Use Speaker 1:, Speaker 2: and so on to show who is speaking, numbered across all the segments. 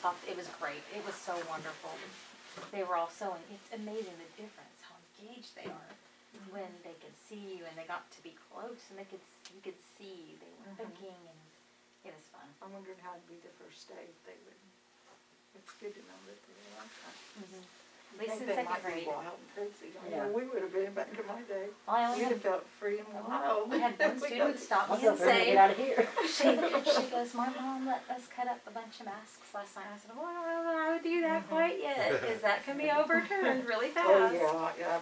Speaker 1: talked, it was great, it was so wonderful. They were all sewing, it's amazing the difference, how engaged they are when they could see you and they got to be close and they could, s- you could see, they were
Speaker 2: Mhm.
Speaker 1: thinking and it was fun.
Speaker 2: I wondered how it'd be the first day if they would, it's good to know that they're like that.
Speaker 1: At least in second grade.
Speaker 2: Wild and crazy, I
Speaker 3: Yeah.
Speaker 2: know we would have been back in my day.
Speaker 1: Well, I only
Speaker 2: We'd
Speaker 1: had,
Speaker 2: have felt free and wild.
Speaker 1: we had one
Speaker 2: We
Speaker 1: student
Speaker 2: got- Oh,
Speaker 1: stop
Speaker 3: What's
Speaker 1: me and
Speaker 3: up, everybody?
Speaker 1: say,
Speaker 3: Get out of here.
Speaker 1: she, she goes, my mom let us cut up a bunch of masks last night. I said, well, I don't know how to do that quite yet, cause that can be overturned really fast.
Speaker 2: Mm-hmm. Oh, yeah, yeah.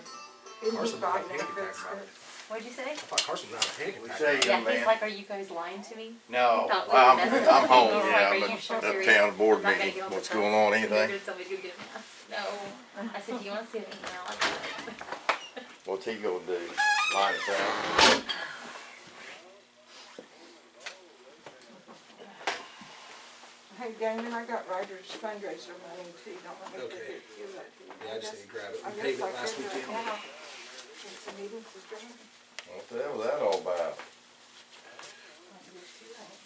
Speaker 2: Isn't he
Speaker 4: Carson was out
Speaker 2: fighting
Speaker 4: panic
Speaker 2: that good
Speaker 4: attack about
Speaker 2: stuff?
Speaker 4: it.
Speaker 1: What'd you say?
Speaker 4: I thought Carson was out panic
Speaker 5: We
Speaker 4: attack
Speaker 5: say
Speaker 4: about it.
Speaker 5: you-
Speaker 1: Yeah,
Speaker 5: Young
Speaker 1: he's
Speaker 5: man.
Speaker 1: like, are you guys lying to me?
Speaker 5: No,
Speaker 1: Thought we
Speaker 5: I'm,
Speaker 1: were messing
Speaker 5: I'm
Speaker 1: with
Speaker 5: home,
Speaker 1: people,
Speaker 5: yeah,
Speaker 1: like, are you
Speaker 5: but
Speaker 1: sure
Speaker 5: that
Speaker 1: serious?
Speaker 5: town board
Speaker 1: I'm not gonna
Speaker 5: meeting,
Speaker 1: go on
Speaker 5: what's
Speaker 1: the bus.
Speaker 5: going
Speaker 1: You're
Speaker 5: on,
Speaker 1: gonna
Speaker 5: anything?
Speaker 1: tell me to go get a mask? No. I said, do you wanna see an email? I got?"
Speaker 5: What's he gonna do? Line us out?
Speaker 2: Hey, Damon, I got Ryder's fundraiser money too, don't let me
Speaker 4: Okay.
Speaker 2: forget to give that to you.
Speaker 4: Yeah, I just need to grab it.
Speaker 2: I
Speaker 4: We
Speaker 2: guess
Speaker 4: paid it
Speaker 2: I
Speaker 4: last
Speaker 2: could right
Speaker 4: weekend.
Speaker 2: now, since the meeting's adjourned.
Speaker 5: What the hell was that all about?
Speaker 2: Might be too late.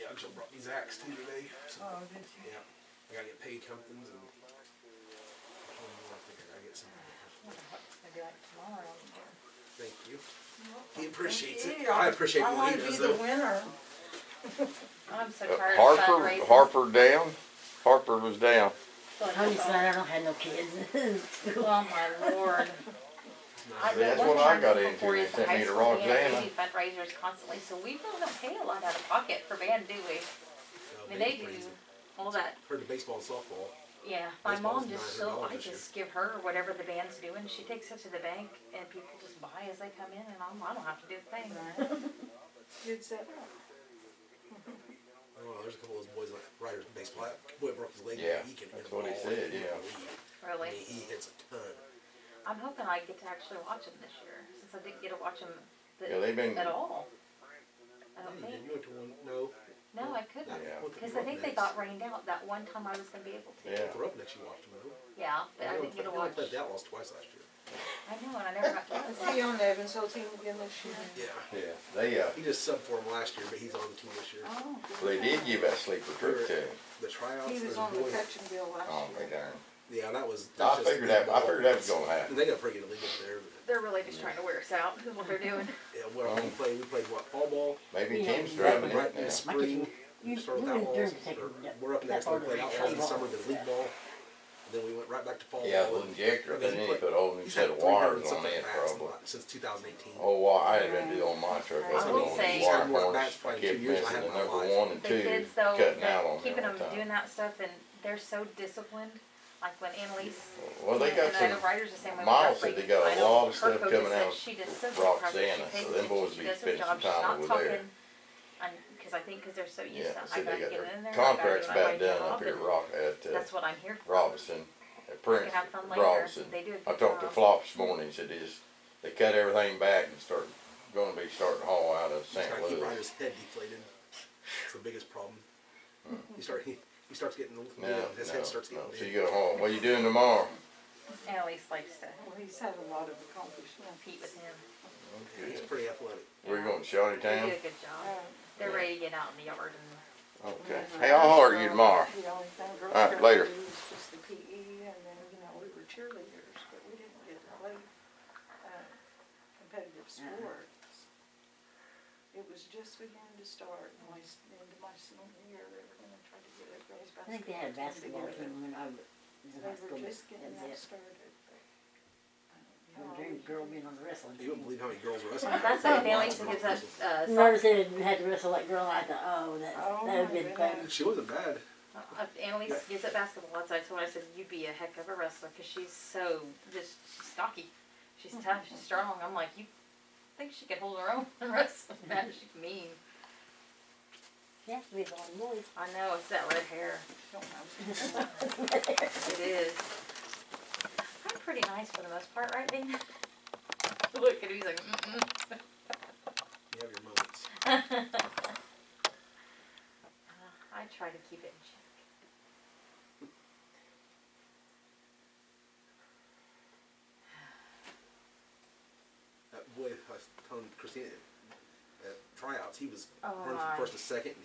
Speaker 4: Yeah, Jill brought these axe too today. So,
Speaker 2: Oh, did you?
Speaker 4: yeah, I gotta get paid companies and. I don't know, I think I gotta get some.
Speaker 1: Maybe like tomorrow.
Speaker 4: Thank you. He appreciates it.
Speaker 2: Yeah,
Speaker 4: I appreciate
Speaker 2: I
Speaker 4: what
Speaker 2: wanna
Speaker 4: he
Speaker 2: be
Speaker 4: does
Speaker 2: the
Speaker 4: though.
Speaker 2: winner.
Speaker 1: I'm so
Speaker 5: Uh,
Speaker 1: tired of
Speaker 5: Harper,
Speaker 1: fundraising.
Speaker 5: Harper down? Harper was down.
Speaker 1: Feel like
Speaker 3: Tony's
Speaker 1: it's all-
Speaker 3: glad I don't have no kids in school.
Speaker 1: Oh my lord. I-
Speaker 5: See, that's
Speaker 1: one
Speaker 5: what
Speaker 1: thing
Speaker 5: I
Speaker 1: I'm
Speaker 5: got
Speaker 1: thankful
Speaker 5: into.
Speaker 1: for
Speaker 5: They
Speaker 1: is
Speaker 5: sent
Speaker 1: high
Speaker 5: me to
Speaker 1: school, we have
Speaker 5: Roxanna.
Speaker 1: crazy Fundraisers constantly, so we really don't pay a lot out of pocket for band, do we? I mean, they do all that,
Speaker 4: Heard the baseball and softball.
Speaker 1: yeah. My
Speaker 4: Baseball's
Speaker 1: mom just,
Speaker 4: $900
Speaker 1: so I
Speaker 4: this year.
Speaker 1: just give her whatever the band's doing, she takes it to the bank and people just buy as they come in and I'm, I don't have to do a thing.
Speaker 2: Good setup.
Speaker 4: I don't know, there's a couple of those boys like Ryder's baseball. That boy broke his leg.
Speaker 5: Yeah,
Speaker 4: he can hit
Speaker 5: that's
Speaker 4: a
Speaker 5: what he
Speaker 4: ball.
Speaker 5: said, yeah.
Speaker 4: I
Speaker 1: Really.
Speaker 4: mean, he hits a ton.
Speaker 1: I'm hoping I get to actually watch them this year, since I didn't get to watch them
Speaker 5: Yeah, they've been-
Speaker 1: at all. I
Speaker 4: Yeah,
Speaker 1: don't
Speaker 4: you
Speaker 1: think,
Speaker 4: didn't. You went to one, no.
Speaker 1: no, I couldn't,
Speaker 5: Yeah.
Speaker 1: cause I think they got rained out that one time I was gonna be able to.
Speaker 5: Yeah.
Speaker 4: The Roughnecks you watched them though.
Speaker 1: Yeah, but I
Speaker 4: They
Speaker 1: didn't get to
Speaker 4: only
Speaker 1: watch,
Speaker 4: played that loss twice last year.
Speaker 1: I know, and I never got to watch.
Speaker 2: Is he on the Evansville team again this year?
Speaker 4: Yeah.
Speaker 5: Yeah, they, uh,
Speaker 4: He just subbed for him last year, but he's on the team this year.
Speaker 2: Oh,
Speaker 5: they
Speaker 2: good.
Speaker 5: did give that sleeper truck to him.
Speaker 4: The tryouts.
Speaker 2: He
Speaker 4: there's
Speaker 2: was
Speaker 4: a
Speaker 2: on the
Speaker 4: boy-
Speaker 2: touch and bill
Speaker 5: Oh,
Speaker 2: last
Speaker 5: my
Speaker 2: year.
Speaker 5: darn.
Speaker 4: Yeah, that was.
Speaker 5: I
Speaker 4: that's just
Speaker 5: figured that- I
Speaker 4: the
Speaker 5: figured that
Speaker 4: ball.
Speaker 5: was gonna happen.
Speaker 4: They got freaking illegal there. but-
Speaker 1: They're really just trying to wear us out, is what they're doing.
Speaker 4: Yeah, well,
Speaker 5: Um,
Speaker 4: we played, we played what, fall ball,
Speaker 5: Maybe
Speaker 3: Yeah.
Speaker 5: Tim's
Speaker 3: Right
Speaker 5: driving
Speaker 4: right
Speaker 5: it
Speaker 4: in the
Speaker 5: now.
Speaker 4: spring.
Speaker 3: You-
Speaker 4: Started
Speaker 3: you
Speaker 4: with
Speaker 3: and
Speaker 4: outlaws,
Speaker 3: Dirk take
Speaker 4: or
Speaker 3: that-
Speaker 4: We're up
Speaker 3: that
Speaker 4: next, we
Speaker 3: part of
Speaker 4: played
Speaker 3: the
Speaker 4: outlaws in the
Speaker 3: table.
Speaker 4: summer, then league ball. And then we went right back to fall ball.
Speaker 5: Yeah, the
Speaker 4: and-
Speaker 5: injector,
Speaker 4: and
Speaker 5: they
Speaker 4: he
Speaker 5: need to
Speaker 4: played-
Speaker 5: put a whole new
Speaker 4: he's
Speaker 5: set
Speaker 4: had
Speaker 5: of
Speaker 4: 300
Speaker 5: wires on
Speaker 4: something
Speaker 5: it
Speaker 4: bats in
Speaker 5: probably.
Speaker 4: the- Since two thousand eighteen.
Speaker 5: Oh, well, I had been doing my truck, I was
Speaker 1: I will
Speaker 5: doing
Speaker 1: say-
Speaker 5: wire
Speaker 4: Some more
Speaker 5: harness,
Speaker 4: bats
Speaker 5: I
Speaker 4: probably two
Speaker 5: kept
Speaker 4: years I
Speaker 5: missing
Speaker 4: had
Speaker 5: the
Speaker 4: in my
Speaker 5: number
Speaker 4: life.
Speaker 5: one and
Speaker 1: The
Speaker 5: two,
Speaker 1: kids though,
Speaker 5: cutting
Speaker 1: that-
Speaker 5: out on me
Speaker 1: keeping
Speaker 5: all
Speaker 1: them
Speaker 5: the
Speaker 1: doing
Speaker 5: time.
Speaker 1: that stuff and they're so disciplined, like when Annalise.
Speaker 5: Well, they
Speaker 1: and
Speaker 5: got
Speaker 1: I know
Speaker 5: some-
Speaker 1: Ryder's the same way with
Speaker 5: Miles
Speaker 1: her
Speaker 5: said they
Speaker 1: freaking-
Speaker 5: got a
Speaker 1: I know
Speaker 5: lot of
Speaker 1: her
Speaker 5: stuff
Speaker 1: coach
Speaker 5: coming
Speaker 1: said
Speaker 5: out
Speaker 1: She does so good practice, she
Speaker 5: Roxanna,
Speaker 1: pays
Speaker 5: so them
Speaker 1: attention,
Speaker 5: boys
Speaker 1: she
Speaker 5: be
Speaker 1: does her
Speaker 5: spending
Speaker 1: job,
Speaker 5: some
Speaker 1: she's
Speaker 5: time
Speaker 1: not
Speaker 5: over there.
Speaker 1: talking. And- cause I think, cause they're so
Speaker 5: Yeah,
Speaker 1: used to, I
Speaker 5: said
Speaker 1: gotta
Speaker 5: they
Speaker 1: get
Speaker 5: got
Speaker 1: in
Speaker 5: their
Speaker 1: there. I gotta do
Speaker 5: contracts
Speaker 1: my
Speaker 5: about
Speaker 1: way
Speaker 5: done up
Speaker 1: job,
Speaker 5: here at
Speaker 1: and
Speaker 5: Rock, at, uh,
Speaker 1: That's what I'm here for.
Speaker 5: Robinson, at Prince
Speaker 1: have fun later.
Speaker 5: Robinson.
Speaker 1: They do a
Speaker 5: I
Speaker 1: good
Speaker 5: talked to
Speaker 1: job.
Speaker 5: Flop this morning, he said is, they cut everything back and start, gonna be starting to haul out of
Speaker 4: He's
Speaker 5: St.
Speaker 4: trying to keep
Speaker 5: Louis.
Speaker 4: Ryder's head deflated. It's the biggest problem. He start, he, he starts getting, the- you
Speaker 5: No,
Speaker 4: know,
Speaker 5: no,
Speaker 4: his head starts getting
Speaker 5: no, so
Speaker 4: big.
Speaker 5: you go home, what you doing tomorrow?
Speaker 1: Annalise likes to
Speaker 2: Well, he's had a lot of accomplishments.
Speaker 1: compete with him.
Speaker 4: Yeah, He's pretty athletic.
Speaker 5: We're going to
Speaker 1: They do
Speaker 5: Shawty
Speaker 1: a
Speaker 5: Town?
Speaker 1: good job. They're
Speaker 5: Yeah.
Speaker 1: ready to get out in the yard and
Speaker 5: Okay, hey, I'll holler at you tomorrow.
Speaker 2: The only thing girls
Speaker 5: All right,
Speaker 2: got
Speaker 5: later.
Speaker 2: to do was just the PE, and then, you know, we were cheerleaders, but we didn't get to play uh, competitive sports. It was just beginning to start, and my, s- into my senior year, they were gonna try to get a girls'
Speaker 3: I think they had a
Speaker 2: basketball
Speaker 3: basketball
Speaker 2: team
Speaker 3: team when I was
Speaker 2: together.
Speaker 3: in high
Speaker 2: They
Speaker 3: school,
Speaker 2: were
Speaker 3: but
Speaker 2: just getting that
Speaker 3: that's it.
Speaker 2: started, but. I don't
Speaker 3: I
Speaker 2: know.
Speaker 3: dream girl being on the wrestling
Speaker 4: You
Speaker 3: team.
Speaker 4: wouldn't believe how many girls are wrestling.
Speaker 1: That's why Bailey gives us uh, soccer.
Speaker 3: Whenever said it had to wrestle that girl, I thought, oh, that's,
Speaker 2: Oh,
Speaker 3: that would've
Speaker 2: my
Speaker 3: been fun.
Speaker 2: goodness.
Speaker 4: She wasn't bad.
Speaker 1: Uh, Annalise gives up basketball. That's why I told her I said you'd be a heck of a wrestler because she's so just she's stocky. She's tough. She's strong. I'm like you think she could hold her own in wrestling match? She's mean.
Speaker 3: She has to be the only
Speaker 1: I know it's that red hair.
Speaker 2: Don't know.
Speaker 1: It is. I'm pretty nice for the most part, right, Dana? Look at him. He's like, mm
Speaker 4: You have your moments.
Speaker 1: Uh, I try to keep it in check.
Speaker 4: That boy, I was telling Christina, at tryouts, he was
Speaker 1: Oh
Speaker 4: running
Speaker 1: my.
Speaker 4: from first to second, and he